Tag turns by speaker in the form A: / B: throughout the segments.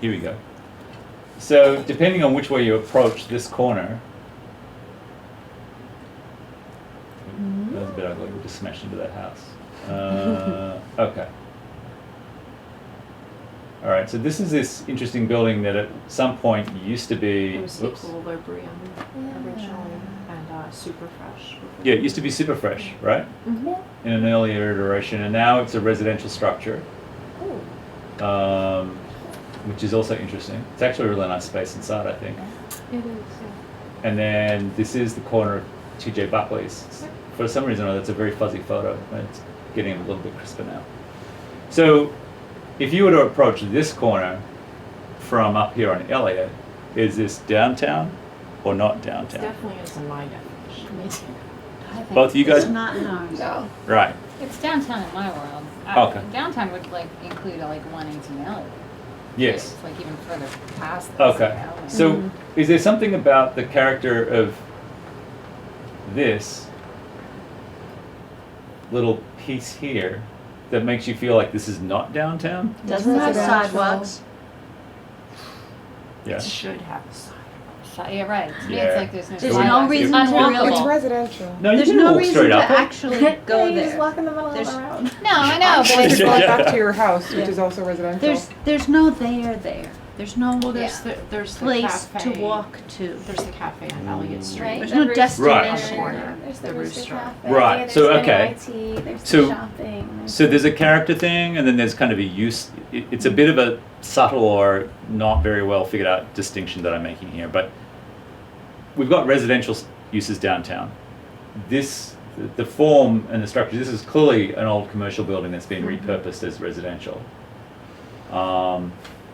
A: Here we go. So depending on which way you approach this corner. That was a bit ugly, we just smashed into that house. Uh, okay. Alright, so this is this interesting building that at some point used to be,
B: It was the
A: whoops.
B: Equilibrium originally and uh, super fresh.
A: Yeah, it used to be super fresh, right?
B: Mm-hmm.
A: In an earlier iteration, and now it's a residential structure.
C: Ooh.
A: um, which is also interesting. It's actually a really nice space inside, I think.
B: It is.
A: And then this is the corner of TJ Buckley's. It's- For some reason, or other, it's a very fuzzy photo, and it's getting a little bit crisper now. So, if you were to approach this corner from up here on Elliott, is this downtown or not
B: It's
A: downtown?
B: definitely is in my definition.
A: Both of you guys-
D: It's not known.
C: No.
A: Right.
E: It's downtown in my world. I-
A: Okay.
E: Downtown would like include like one eighteen Elliott.
A: Yes.
E: It's, Like even further past. this,
A: Okay.
E: you know, and-
A: So,
D: Hmm.
A: is there something about the character of this little piece here that makes you feel like this is not downtown?
D: Doesn't have sidewalks.
A: Yeah.
B: It should have a sign.
E: So- Yeah, right. To me,
A: Yeah.
E: it's like there's no.
D: There's
A: no
E: sidewalks.
A: reason
E: It's
A: to
E: unwalkable.
D: really-
C: It's residential.
A: No, you
D: There's
A: can
D: no
A: walk
D: reason
A: straight
D: to
A: up. it.
D: actually
C: Yeah,
D: go
C: you just
D: there.
C: walk in the middle of
D: There's-
C: the road.
E: No, I know,
C: Or
E: but
C: just
E: it's
A: Yeah.
C: walk
E: like,
C: back to your house, which
D: Yeah.
C: is also residential.
D: There's, there's no there there. There's no
B: Well, there's the, there's the
D: place to
B: cafe-
D: walk to.
B: There's the cafe on Elliott Street.
E: Right.
D: There's no
F: That rooster
A: Right.
B: on the
D: destination.
B: corner.
F: There's the
B: The
F: Rooster
B: Rooster.
F: Cafe.
A: Right,
F: There's
A: so,
F: NYT,
A: okay.
F: There's
A: So-
F: the shopping.
A: So there's a character thing, and then there's kind of a use. it- It's a bit of a subtle or not very well figured out distinction that I'm making here, but we've got residential s- uses downtown. This, the- the form and the structure. This is clearly an old commercial building that's been
B: Mm-hmm.
A: repurposed as residential. Um,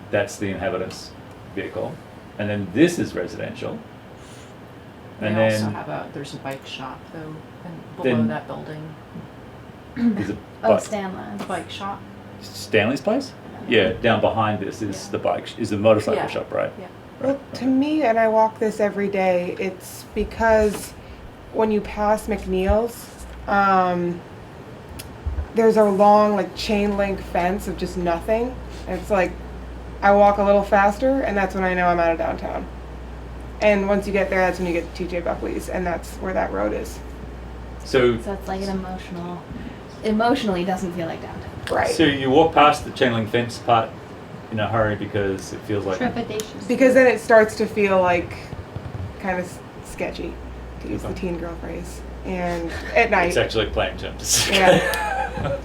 A: that's the inhabitants' vehicle, and then this is residential.
B: They
A: And
B: also
A: then
B: have a, there's a bike shop though, and
A: Then-
B: below that building.
A: there's a
F: Oh,
A: bike-
F: Stanley's.
B: Bike shop?
A: Stanley's place. Yeah, down behind this is
B: Yeah.
A: the bike sh- is the motorcycle
B: Yeah.
A: shop, right?
B: Yeah.
A: Right.
C: Well, to me, and I walk this every day, it's because when you pass McNeil's, um, there's a long, like, chain link fence of just nothing. And it's like, I walk a little faster, and that's when I know I'm out of downtown. And once you get there, that's when you get to TJ Buckley's, and that's where that road is.
A: So,
F: So it's like an emotional, emotionally doesn't feel like downtown.
C: Right.
A: so you walk past the chain link fence part in a hurry because it feels like
D: Trepidatious.
C: because then it starts to feel like kind of sketchy, to use the
A: Okay.
C: teen girl phrase. And at night.
A: it's actually playing terms.
C: Yeah.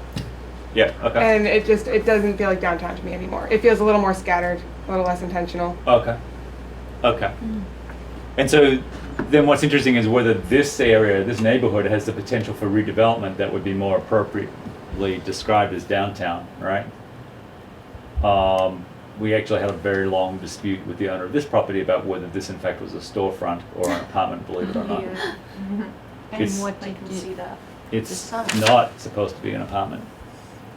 A: yeah. Okay.
C: and it just it doesn't feel like downtown to me anymore. It feels a little more scattered, a little less intentional.
A: okay. Okay.
C: Hmm.
A: And so, then what's interesting is whether this area, this neighborhood, has the potential for redevelopment that would be more appropriately described as downtown, right? Um, we actually had a very long dispute with the owner of this property about whether this, in fact, was a storefront or an apartment, believe it or not. It's-
D: And what
B: I
D: did
B: can see
D: you,
B: that.
A: It's
D: Just-
A: not supposed to be an apartment.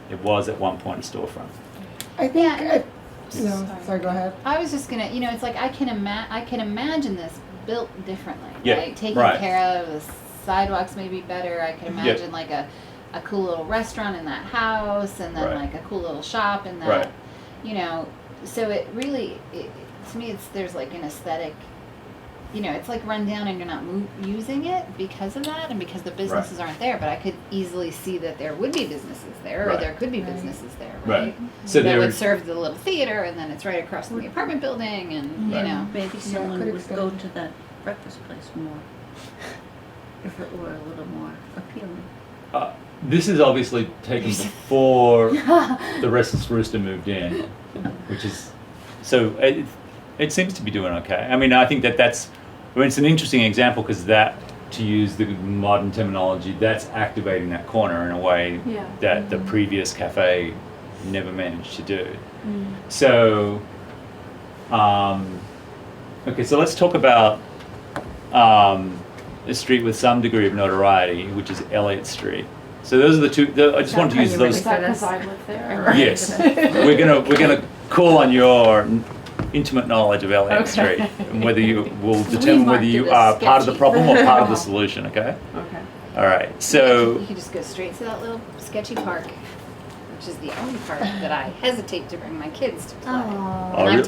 A: It was at one point a storefront.
C: I think. uh,
E: Yeah.
C: I, no, sorry. Go ahead.
E: I was just gonna, you know, it's like I can ima- I can imagine this built differently.
A: Yeah,
E: Like taken
A: right.
E: care of, the sidewalks maybe better. I can
A: Yeah.
E: imagine like a, a cool little restaurant in that house, and then
A: Right.
E: like a cool little shop in that.
A: Right.
E: You know, so it really, it, to me, it's there's like an aesthetic. You know, it's like run down and you're not mo- using it because of that and because the businesses aren't there. But I could easily see that there would be businesses there, or
A: Right.
E: there could be
C: Right.
E: businesses there,
A: Right. So
E: that
A: there
E: would serve the little theater, and then it's right across from the apartment building, and
A: Right.
E: you know,
D: maybe
C: could
D: someone would
C: extend
D: go
C: it.
D: to that breakfast place more if it were a little more appealing.
A: Uh, this is obviously taken before the restless rooster moved in, which is so it, it seems to be doing okay. I mean, I think that that's I mean, it's an interesting example because that to use the modern terminology, that's activating that corner in a way
B: Yeah. Mm-hmm.
A: that the previous cafe never managed to do.
B: Mm.
A: So, um, okay, so let's talk about um, a street with some degree of notoriety, which is Elliott Street. So those are the two. The, I just wanted to use
B: Is
A: those.
B: that because I live there?
A: Yes, we're gonna we're gonna call on your n- intimate knowledge of Elliott Street and whether you will determine whether
D: marked
A: you
D: it
A: are
D: as
A: part of the
D: sketchy.
A: problem or part of the solution. Okay.
B: Okay.
A: All right. So.
E: you could just go straight to that little sketchy park, which is the only park that I hesitate to bring my kids to play.
F: Aww.
A: Oh,
E: And I've
A: really?